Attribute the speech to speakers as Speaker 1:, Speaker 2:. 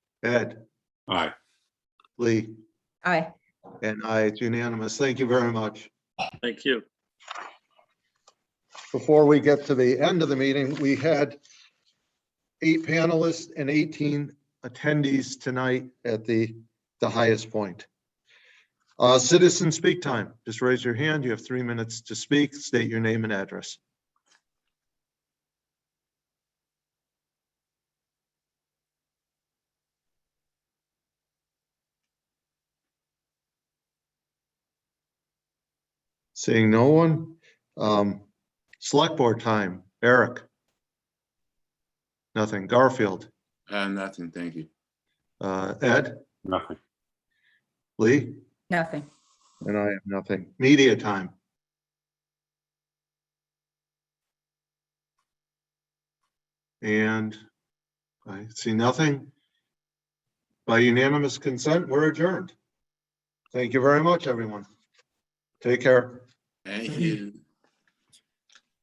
Speaker 1: Ed,
Speaker 2: Aye.
Speaker 1: Lee,
Speaker 3: Aye.
Speaker 1: and I, it's unanimous. Thank you very much.
Speaker 2: Thank you.
Speaker 1: Before we get to the end of the meeting, we had eight panelists and 18 attendees tonight at the, the highest point. Uh, Citizen speak time. Just raise your hand. You have three minutes to speak. State your name and address. Seeing no one, um, Select board time, Eric. Nothing, Garfield,
Speaker 4: Uh, nothing, thank you.
Speaker 1: uh, Ed,
Speaker 2: Nothing.
Speaker 1: Lee,
Speaker 3: Nothing.
Speaker 1: and I have nothing. Media time. And I see nothing. By unanimous consent, we're adjourned. Thank you very much, everyone. Take care.
Speaker 4: Thank you.